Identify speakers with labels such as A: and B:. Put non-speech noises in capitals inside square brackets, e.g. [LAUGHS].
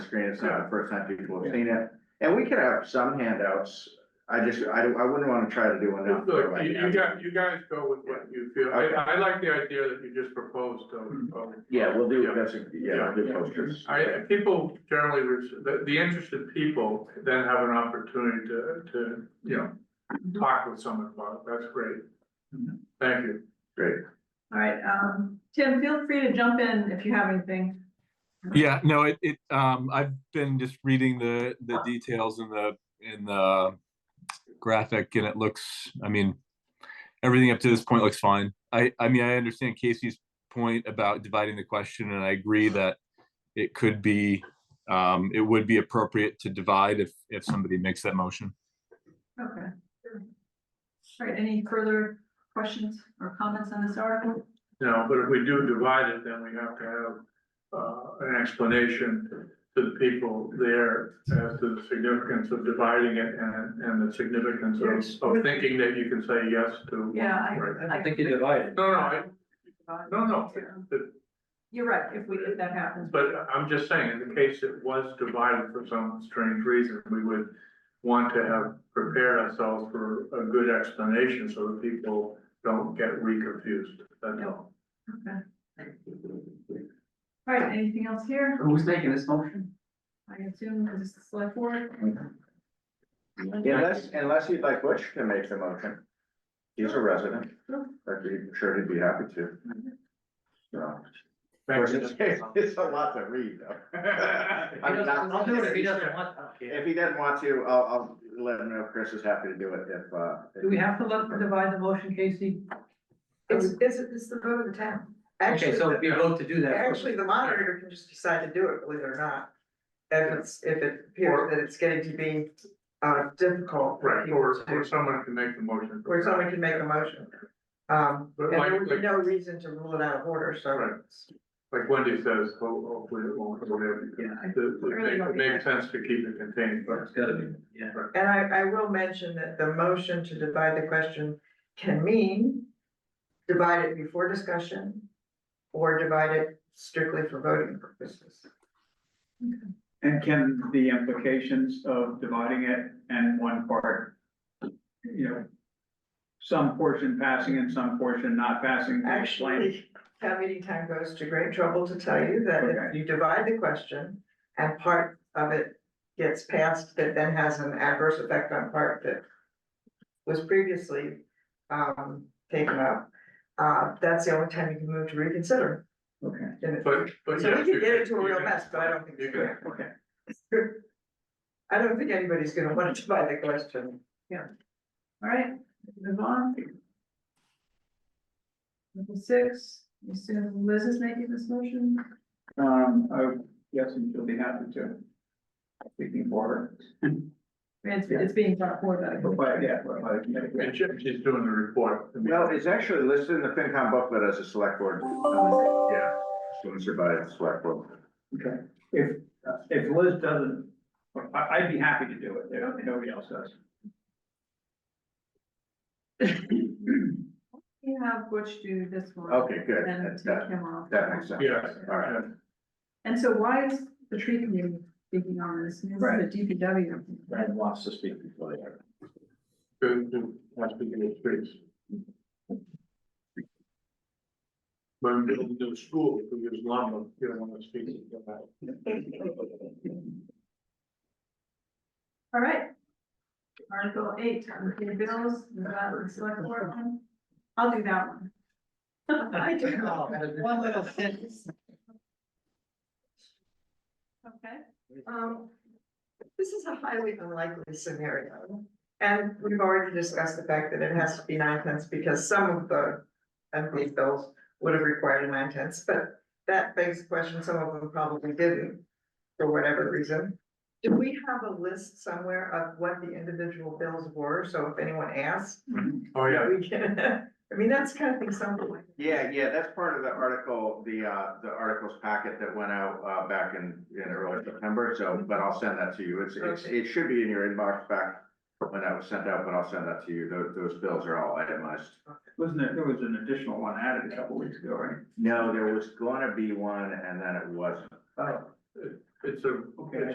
A: screen, it's not the first time people have seen it, and we could have some handouts, I just, I, don't- I wouldn't wanna try to do enough. for
B: Look,
A: like
B: you, you
A: every-
B: got, you guys go with what you feel.
A: Okay.
B: I, I like the idea that you just proposed of. of-
A: Mm-hmm. Yeah, we'll do,
B: Yeah.
A: that's, a- yeah, we'll do
B: Yeah.
A: posters.
B: I, people generally, res- the, the interested people then have an opportunity to, to, you
A: Mm-hmm.
B: know, talk with someone about it. That's great. Thank you.
C: All right, um, Tim, feel free to jump in if you have anything.
D: Yeah, no, it, it, um, I've been just reading the, the details in the, in the graphic and it looks, I mean, everything up to this point looks fine. I, I mean, I understand Casey's point about dividing the question and I agree that it could be, um, it would be appropriate to divide if, if somebody makes that motion.
C: Okay. All right, any further questions or comments on this article?
B: You know, but if we do divide it, then we have to have, uh, an explanation to the people there as to the significance of dividing it and, and the significance of, of thinking that you can say yes to.
C: Yeah, I-
B: Right.
E: I think you divided.
B: No, no, I, no, no, the-
C: You're right, if we, if that happens.
B: But I'm just saying, in the case it was divided for some strange reason, we would want to have prepared ourselves for a good explanation so that people don't get reconfused. That's all.
C: Okay. All right, anything else here?
E: Who's making this motion?
C: I assume this is the select board.
A: Unless, unless you'd like Butch to make the motion, he's a resident,
C: Sure.
A: I'd be sure he'd be happy to, so. Of
B: Thank
A: course,
B: you.
A: it's, [LAUGHS] it's a lot to read,
B: [LAUGHS]
A: though. I mean, I'll-
E: I'll do it if he doesn't want.
A: If he doesn't want to, I'll, I'll let him know, Chris is happy to do it if, uh. if-
E: Do we have to let, divide the motion, Casey?
F: It's, it's, it's the vote of the town. Actually,
E: Okay, so if
F: the-
E: we vote to do that.
F: actually, the monitor can just decide to do it, believe it or not. If it's, if it appears that it's getting to be, uh, difficult. for
B: Right,
F: people
B: or, or
F: to-
B: someone can make the motion.
F: Where someone can make a motion. Um,
B: But
F: and there would be
B: like-
F: no reason to rule it out of order,
B: Right.
F: so.
B: Like Wendy says, ho- hopefully it won't, whatever.
E: Yeah, I-
B: It it makes sense to keep it contained, but.
E: It's gotta be, yeah.
F: And I, I will mention that the motion to divide the question can mean divide it before discussion or divide it strictly for voting purposes.
G: And can the implications of dividing it and one part, you know, some portion passing and some portion not passing? be explained?
F: Actually, town meeting time goes to great trouble to tell you that if
G: Okay.
F: you divide the question and part of it gets passed, that then has an adverse effect on part that was previously um taken up, uh that's the only time you can move to reconsider.
G: Okay,
F: And it-
B: But, but.
F: So
B: yes,
F: we
B: you
F: could get into a
B: you
F: real
B: can-
F: mess, but I don't think.
B: You
F: it's
B: can
F: good.
G: okay.
F: [LAUGHS] I don't think anybody's gonna want to [LAUGHS] divide the question.
C: All right, move on. Number six, you assume Liz is making this motion?
G: Um, I guess you'll be happy to. Speaking for
C: It's, it's being brought forward.
G: her, but yeah, but like,
B: And she- she's doing the report.
A: Well, it's actually listed in the FinCom booklet as a select board,
C: Oh,
A: yeah, sponsored by the select board.
G: okay. If, if Liz doesn't, I, I'd be happy to do it if nobody else does.
C: is it? You have Butch do this one.
A: Okay, good,
C: And then
A: that,
C: take
A: that,
C: him off.
A: that makes sense,
B: Yeah.
A: all right.
C: And so why is the tree committee speaking on this? This is
G: Right.
C: the DPW.
A: Brad wants to speak before
E: [LAUGHS]
A: they.
B: to, to, has to be increased. When we do the school, we use llama, you don't want to speak about.
C: All right. Article eight, unpaid bills, is that the select board one? I'll do that one. [LAUGHS] I do.
G: [LAUGHS]
E: Oh, One little sentence.
C: Okay.
F: Um, this is a highly unlikely scenario. And we've already discussed the fact that it has to be nine tenths because some of the unpaid bills would have required a nine tenths, but that begs the question, some of them probably didn't for whatever reason. Do we have a list somewhere of what the individual bills were? So if anyone asks,
B: Oh, yeah,
F: we can, [LAUGHS] I mean, that's kind of thing something.
A: Yeah, yeah, that's part of the article, the, uh, the articles packet that went out, uh, back in, in early September, so, but I'll send that to you, it's, it's,
F: Okay.
A: it should be in your inbox back when that was sent out, but I'll send that to you, those, those bills are all itemized.
G: Wasn't there, there was an additional one added a couple weeks ago, right?
A: No, there was gonna be one, and then it wasn't.
F: Oh.
B: Uh, it's a,
G: Okay.
B: it's